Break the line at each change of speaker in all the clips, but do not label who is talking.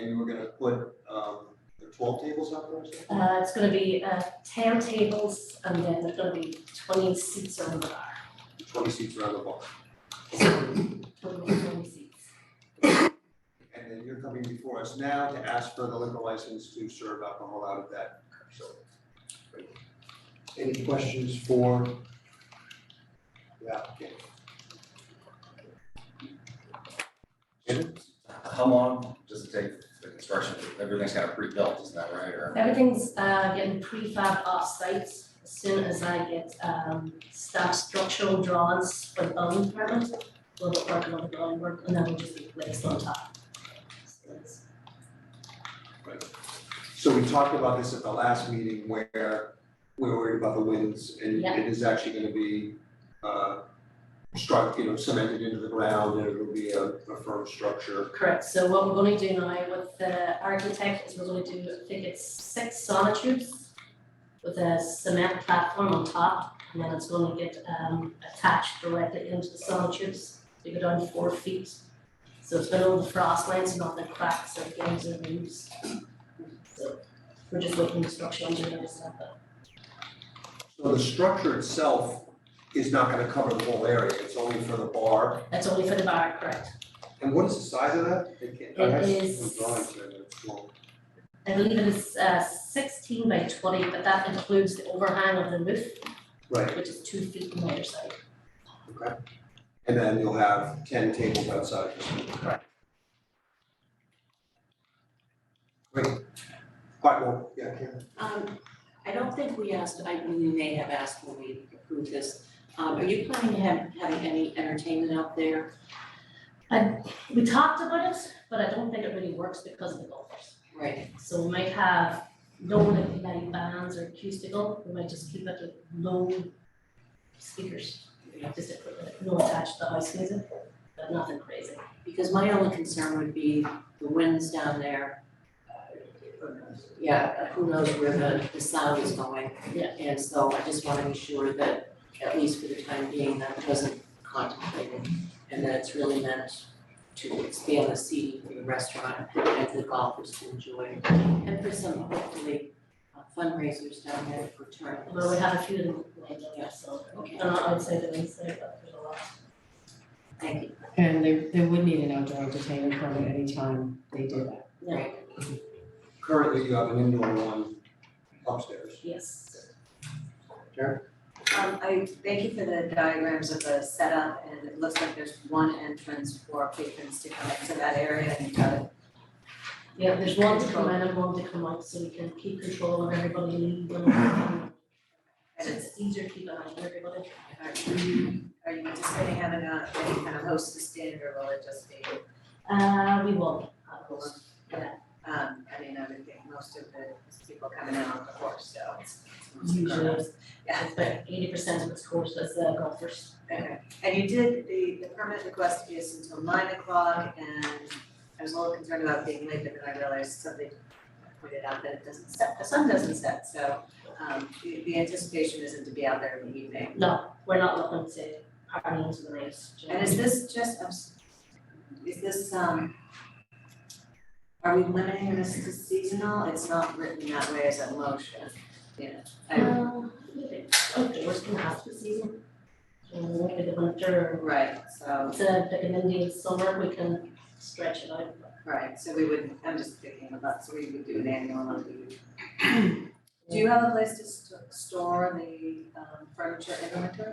and we're gonna put, um, the twelve tables up there or something?
Uh, it's gonna be, uh, ten tables, and then there's gonna be twenty seats on the bar,
Twenty seats around the bar.
twenty, twenty seats.
And then you're coming before us now to ask for the liquor license to serve alcohol out of that facility. Great. Any questions for the applicant? Jim?
How long does it take for the construction? Everything's kind of pre-built, isn't that right, or?
Everything's, uh, getting prefab off-site as soon as I get, um, staff structural drawings for the building permit. We'll be working on the drawing work, and then we'll just be placed on top. So it's-
So we talked about this at the last meeting where we were worried about the winds and
Yeah.
it is actually gonna be uh struck, you know, cemented into the ground and it'll be a a firm structure.
Correct, so what we're gonna do now with the architect is we're gonna do, I think it's six sonotubes with a cement platform on top, and then it's gonna get um attached directly into the sonotubes, they go down four feet. So it's below the frost lines, not the cracks or gaps or leaves. So we're just looking at structural engineering stuff, but
So the structure itself is not gonna cover the whole area, it's only for the bar.
that's only for the bar, correct?
And what is the size of that? It can't, I have
It
some
is-
drawings here, but it's small.
I believe it is uh sixteen by twenty, but that includes the overhang of the roof,
Right,
which is two feet on either side.
okay. And then you'll have ten tables outside.
Correct.
Great. Quite well, yeah, Karen.
Um, I don't think we asked, I, we may have asked when we approved this, um, are you planning to have, having any entertainment out there?
We talked about it, but I don't think it really works because of the golfers.
Right,
So we might have no like light bands or acoustical, we might just keep it with low speakers. you know, Just to put it, no attached to house music, but nothing crazy.
because my only concern would be the winds down there. Uh, Yeah, who knows where the, the sound is going.
Yeah.
And so I just wanna be sure that, at least for the time being, that wasn't contemplated, and that it's really meant to expand the seating for the restaurant and for the golfers to enjoy, and for some hopefully uh, fundraisers down there for tournaments.
Well, uh, we have a few of them lined up, so,
Okay,
and I would say the ones there, but there's a lot.
thank you,
And they, they would need an outdoor entertainment permit anytime they do that.
Right.
Currently, you have an indoor one upstairs.
Yes.
Um, I thank you for the diagrams of the setup, and it looks like there's one entrance for patrons to come into that area and kind of
Yeah, there's one to come in and one to come out, so we can keep control of everybody leaving. And
and it's,
it's easier to keep an eye on everybody.
are you, are you anticipating having a, any kind of hostess stand, or will it just be,
Uh, we won't have those.
um, I mean, I would think most of the people coming in on the horse, so it's. it's most
usually,
girls. Yeah.
but eighty percent of its course is uh, golfers.
Okay, and you did, the, the permit request is until nine o'clock, and I was a little concerned about being late, but then I realized somebody pointed out that it doesn't set, the sun doesn't set, so, um, the, the anticipation isn't to be out there in the evening.
No, we're not looking to harm into the race.
And is this just, I'm s- is this, um, are we limiting this to seasonal? It's not written that way as a motion, yeah. I-
Um, outdoors can have the season. Um, maybe the winter,
Right,
or
so,
it's a, like an Indian summer, we can stretch it out.
right, so we would, I'm just thinking about, so we would do an annual, and we would Do you have a place to st- store the um, furniture in the winter?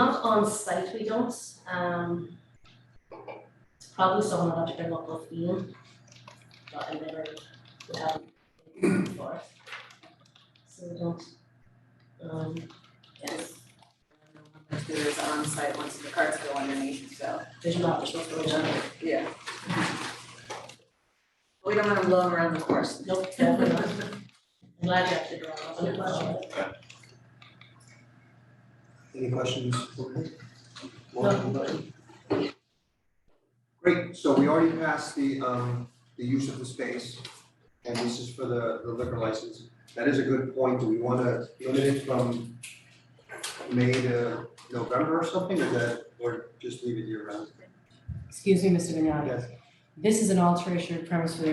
Not on site, we don't, um. It's probably someone I'll have to bring up with Ian, but I never would have it before. So we don't, um, yes.
There is on site once the carts go underneath, so,
There's not, there's not really done.
yeah. We don't want to blow around the course.
Nope, definitely not. I'm Glad you actually brought up that question.
Any questions? for me?
No.
Great, so we already passed the, um, the use of the space, and this is for the the liquor license. That is a good point, do we wanna limit it from May to November or something, or that, or just leave it year round?
Excuse me, Mr. Vignani.
Yes.
This is an alteration of premise for the